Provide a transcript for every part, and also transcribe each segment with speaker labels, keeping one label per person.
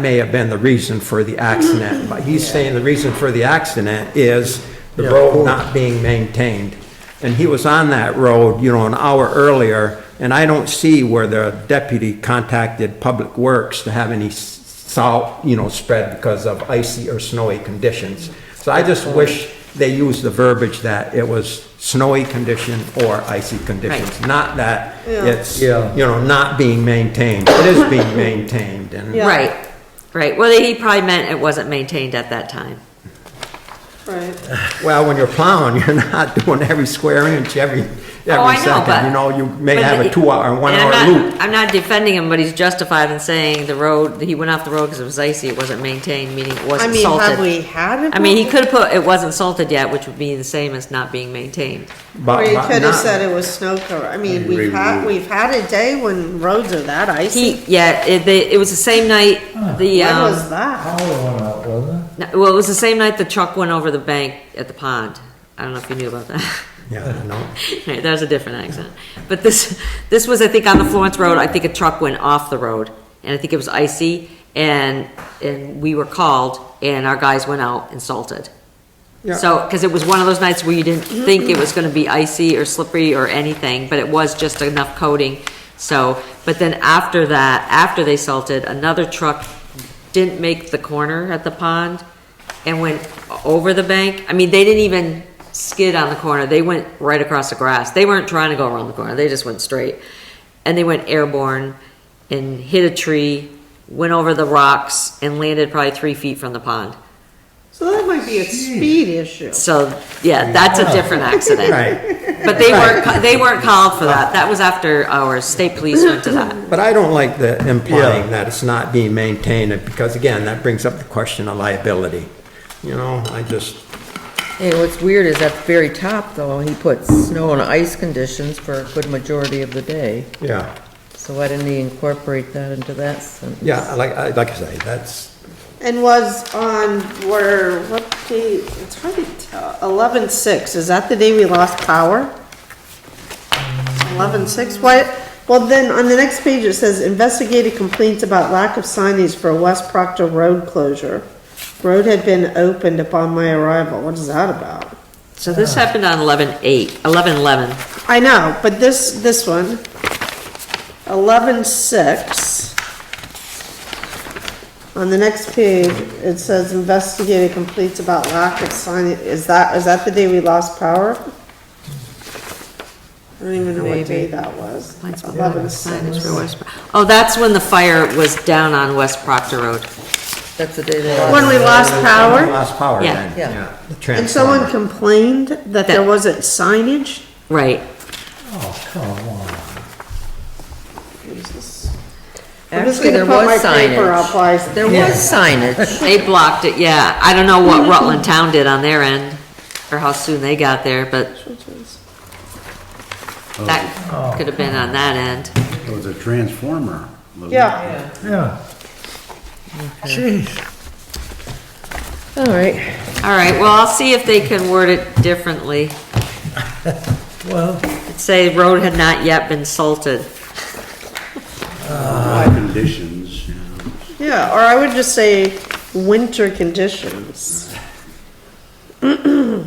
Speaker 1: may have been the reason for the accident, but he's saying the reason for the accident is the road not being maintained. And he was on that road, you know, an hour earlier, and I don't see where the deputy contacted Public Works to have any s- salt, you know, spread because of icy or snowy conditions. So I just wish they used the verbiage that it was snowy condition or icy conditions, not that it's, you
Speaker 2: Yeah.
Speaker 1: know, not being maintained. It is being maintained, and
Speaker 3: Yeah.
Speaker 4: Right, right. Well, he probably meant it wasn't maintained at that time.
Speaker 3: Right,
Speaker 1: Well, when you're plowing, you're not doing every square inch, every,
Speaker 4: Oh, I
Speaker 1: every
Speaker 4: know, but-
Speaker 1: second. You know, you may
Speaker 4: but
Speaker 1: have a
Speaker 4: the-
Speaker 1: two-hour,
Speaker 4: and I'm
Speaker 1: one-hour
Speaker 4: not-
Speaker 1: loop.
Speaker 4: I'm not defending him, but he's justified in saying the road, he went off the road because it was icy, it wasn't maintained, meaning it
Speaker 3: I
Speaker 4: wasn't
Speaker 3: mean, have
Speaker 4: salted.
Speaker 3: we had it?
Speaker 4: I mean, he could have put, it wasn't salted yet, which would be the same as not being maintained.
Speaker 1: but-
Speaker 3: Or he
Speaker 1: but
Speaker 3: could have
Speaker 1: not-
Speaker 3: said it was snow cover, I mean, we've had, we've had a day when roads are that icy.
Speaker 4: He, yeah, it, they- it was the same night, the,
Speaker 3: When was
Speaker 4: um,
Speaker 3: that?
Speaker 2: Power went out, wasn't it?
Speaker 4: no, well, it was the same night the truck went over the bank at the pond. I don't know if you knew about that.
Speaker 1: Yeah, no.
Speaker 4: Right, that was a different accent. But this, this was, I think, on the Florence Road, I think a truck went off the road, and I think it was icy, and, and we were called, and our guys went out and salted. So, because it was one of those nights where you didn't think it was gonna be icy or slippery or anything, but it was just enough coating, so, but then after that, after they salted, another truck didn't make the corner at the pond and went over the bank. I mean, they didn't even skid on the corner, they went right across the grass. They weren't trying to go around the corner, they just went straight. And they went airborne and hit a tree, went over the rocks, and landed probably three feet from the pond.
Speaker 3: So that might be a speed issue.
Speaker 4: So, yeah, that's a different accident.
Speaker 1: Right.
Speaker 4: But they weren't, they weren't called for that. That was after our state police went to that.
Speaker 1: But I don't like the implying
Speaker 2: Yeah.
Speaker 1: that it's not being maintained, because again, that brings up the question of liability. You know, I just,
Speaker 5: Hey, what's weird is at the very top, though, he put snow and ice conditions for a good majority of the day.
Speaker 1: yeah,
Speaker 5: So why didn't he incorporate that into that sentence?
Speaker 1: yeah, like, I- like I say, that's,
Speaker 3: And was on, were, what day, it's hard to tell, eleven six, is that the day we lost power? Eleven six, what, well then, on the next page, it says investigated complaints about lack of signage for West Proctor Road closure. Road had been opened upon my arrival, what is that about?
Speaker 4: So this happened on eleven eight, eleven eleven.
Speaker 3: I know, but this, this one, eleven six. On the next page, it says investigated complaints about lack of signage, is that, is that the day we lost power? I don't even know what day that was. Eleven six.
Speaker 4: Oh, that's when the fire was down on West Proctor Road.
Speaker 5: That's the day they
Speaker 3: When
Speaker 5: lost.
Speaker 3: we lost power,
Speaker 1: lost power
Speaker 4: Yeah.
Speaker 1: then,
Speaker 5: Yeah.
Speaker 1: yeah. the
Speaker 3: and someone
Speaker 1: transformer.
Speaker 3: complained that there wasn't signage?
Speaker 4: Right.
Speaker 2: Oh, come on.
Speaker 3: I'm just
Speaker 5: Actually,
Speaker 3: gonna
Speaker 5: there
Speaker 3: put
Speaker 5: was
Speaker 3: my paper up,
Speaker 5: signage.
Speaker 3: I-
Speaker 5: There was signage.
Speaker 4: They blocked it, yeah. I don't know what Rutland Town did on their end or how soon they got there, but that could have been on that end.
Speaker 6: It was a transformer. wasn't it?
Speaker 3: Yeah,
Speaker 2: Yeah. Jeez.
Speaker 5: All right,
Speaker 4: All right, well, I'll see if they can word it differently.
Speaker 2: Well,
Speaker 4: It'd Say road had not yet been salted.
Speaker 6: High conditions, you know.
Speaker 3: yeah, or I would just say winter conditions.
Speaker 4: Now,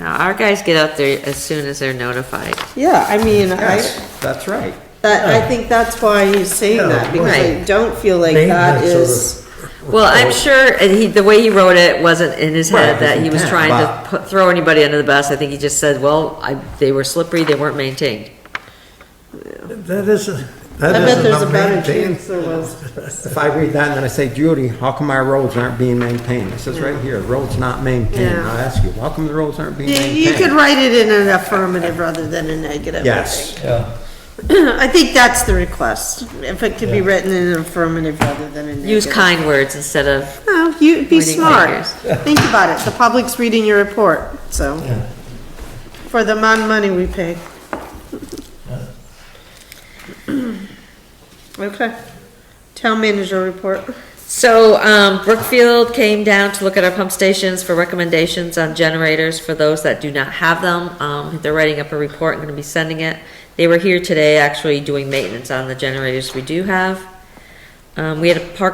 Speaker 4: our guys get out there as soon as they're notified.
Speaker 3: Yeah, I mean, I,
Speaker 1: Yes, that's right.
Speaker 3: that, I think that's why he's saying that, because I
Speaker 4: Right.
Speaker 3: don't feel like that
Speaker 2: Maintenance of
Speaker 3: is,
Speaker 4: Well, I'm sure, and he, the way he wrote it wasn't in his
Speaker 1: Right,
Speaker 4: head that he
Speaker 1: his
Speaker 4: was
Speaker 1: intent,
Speaker 4: trying
Speaker 1: but-
Speaker 4: to put, throw anybody under the bus. I think he just said, well, I, they were slippery, they weren't maintained.
Speaker 2: that isn't,
Speaker 3: I
Speaker 2: that
Speaker 3: bet
Speaker 2: isn't
Speaker 3: there's
Speaker 2: a
Speaker 3: a better
Speaker 2: main
Speaker 3: chance there was.
Speaker 1: If I read that and then I say, Judy, how come our roads aren't being maintained? It says right here, roads not maintained.
Speaker 3: Yeah.
Speaker 1: I ask you, how come the roads aren't being
Speaker 3: You,
Speaker 1: maintained?
Speaker 3: you could write it in an affirmative rather than a negative. I
Speaker 1: Yes.
Speaker 2: Yeah,
Speaker 3: think. I think that's the request, if it could be
Speaker 2: Yeah.
Speaker 3: written in an affirmative rather than a negative.
Speaker 4: Use kind words instead of,
Speaker 3: No, you, be
Speaker 4: Reading
Speaker 3: smart,
Speaker 4: figures.
Speaker 3: think about it, the public's reading your report, so,
Speaker 2: yeah.
Speaker 3: for the amount of money we pay. Okay, town manager report.
Speaker 4: so, um, Brookfield came down to look at our pump stations for recommendations on generators for those that do not have them. Um, they're writing up a report, I'm gonna be sending it. They were here today actually doing maintenance on the generators we do have. Um, we had a park